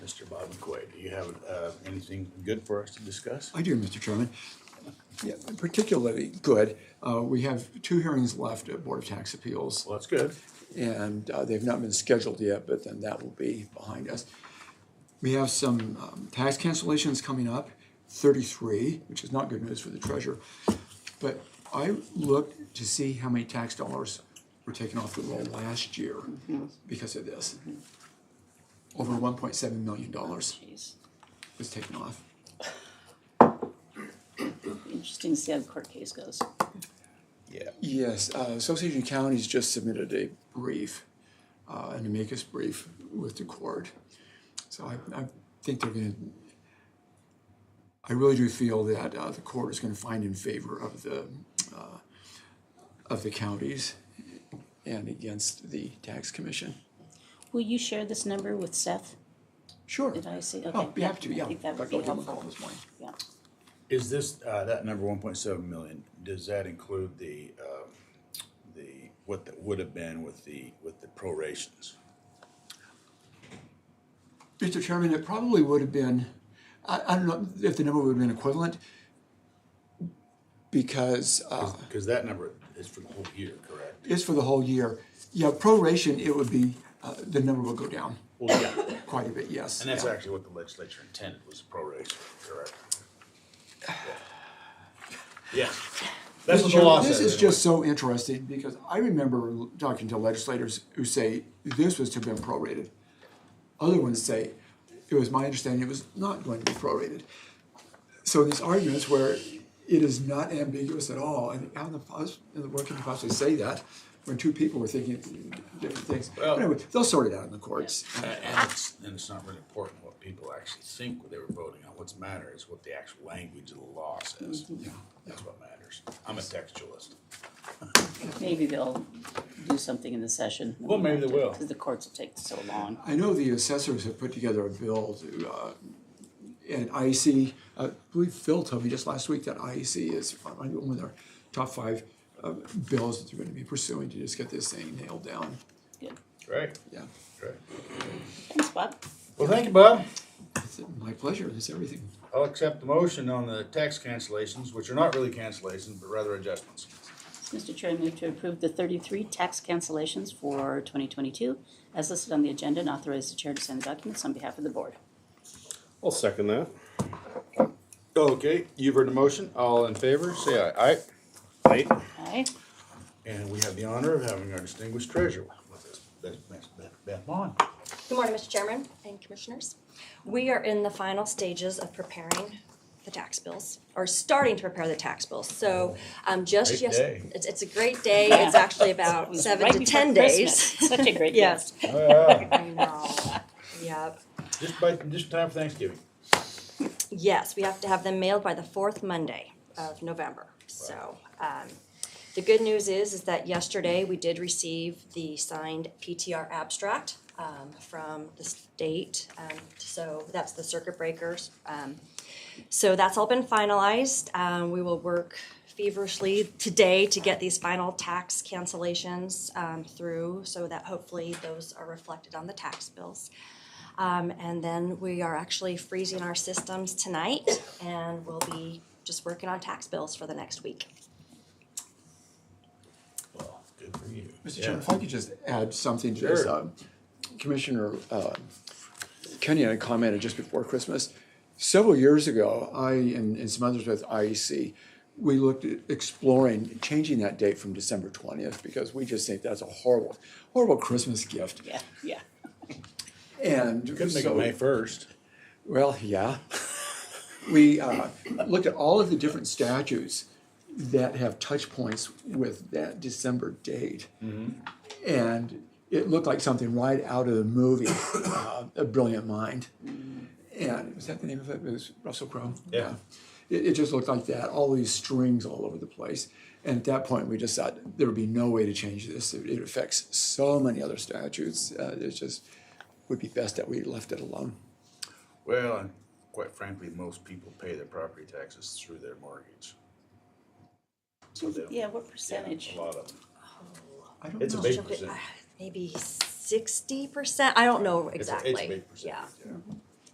Quay, do you have uh, anything good for us to discuss? I do, Mr. Chairman. Yeah, particularly good. Uh, We have two hearings left at Board of Tax Appeals, Well, that's good. and uh, they've not been scheduled yet, but then that will be behind us. We have some um, tax cancellations coming up, 33, which is not good news for the treasurer. But I looked to see how many tax dollars were taken off the roll last year because of this. Over $1.7 million was Jeez. taken off. Interesting to see how the court case goes. Yeah. Yes, uh, Association of Counties just submitted a brief, uh, an amicus brief with the court. So I, I think they're gonna, I really do feel that, uh, the court is gonna find in favor of the, uh, of the counties and against the tax commission. Will you share this number with Seth? Sure. Did I see? Oh, Okay. be happy to, yeah. I think that Dr. would be Oldham called helpful. this morning. Yeah. Is this, uh, that number one point seven million, does that include the, um, the, what that would have been with the, with the prorations? Mr. Chairman, it probably would have been, I, I don't know if the number would have been equivalent because, uh, Because that number is for the whole year, correct? is for the whole year. Yeah, proration, it would be, uh, the number will go down Well, yeah. quite a bit, yes. And that's Yeah. actually what the legislature intended was a proration, correct? Yeah. That's what the law says. This is anyway. just so interesting because I remember talking to legislators who say this was to have been prorated. Other ones say, it was my understanding it was not going to be prorated. So these arguments where it is not ambiguous at all, and how in the, pos- in the world can you possibly say that when two people were thinking different things? Well- Anyway, they'll sort it out in the courts. And and it's, and it's not really important what people actually think when they were voting on. What's matter is what the actual language of the law says. That's what matters. I'm a textualist. Maybe they'll do something in the session. Well, maybe they will. Because the courts will take so long. I know the assessors have put together a bill to, uh, and IEC, I believe Phil told me just last week that IEC is one of their top five uh, bills that they're gonna be pursuing to just get this thing nailed down, Good. Right, yeah. right. Thanks, Bob. Well, thank you, Bob. It's My pleasure, it's everything. I'll accept the motion on the tax cancellations, which are not really cancellations, but rather adjustments. Mr. Chair, I move to approve the thirty-three tax cancellations for twenty twenty-two as listed on the agenda and authorize the chair to sign the documents on behalf of the board. I'll second that. Okay, you've heard the motion. All in favor, say aye. Aye. Aye. Aye. And we have the honor of having our distinguished treasurer with us, Beth- Beth, Beth, Beth Bond. Good morning, Mr. Chairman and Commissioners. We are in the final stages of preparing the tax bills, or starting to prepare the tax bills. So um, just Great yes, day. it's, it's a great day. It's actually It about was seven right to before ten Christmas. days. Such a great Yes, gift. Oh, I know. Yep. Just by, just in time for Thanksgiving. Yes, we have to have them mailed by the fourth Monday of November. So, um, the good news is, is that yesterday we did receive the signed PTR abstract, um, from the state. Um, so that's the circuit breakers. Um, so that's all been finalized. Um, we will work feverishly today to get these final tax cancellations, um, through so that hopefully those are reflected on the tax bills. Um, and then we are actually freezing our systems tonight and we'll be just working on tax bills for the next week. Well, good for you. Mr. Yeah. Chairman, if I could just add something to this. Sure. um, Commissioner uh, Kenny had commented just before Christmas. Several years ago, I and and some others with IEC, we looked at exploring changing that date from December 20th because we just think that's a horrible, horrible Christmas gift. Yeah, yeah. And Couldn't make it so- May first. well, yeah. We uh, looked at all of the different statutes that have touch points with that December date. Mm-hmm. And it looked like something right out of the movie, uh, A Brilliant Mind. And was that the name of it? It was Russell Crowe? Yeah. It, it just looked like that, all these strings all over the place. And at that point, we just thought there would be no way to change this. It, it affects so many other statutes. Uh, it just would be best that we left it alone. Well, and quite frankly, most people pay their property taxes through their mortgage. So they don't- Yeah, what percentage? A lot of them. I don't It's a know. big percentage. Maybe sixty percent, I don't know It's a- exactly. It's a big percentage, Yeah, yeah.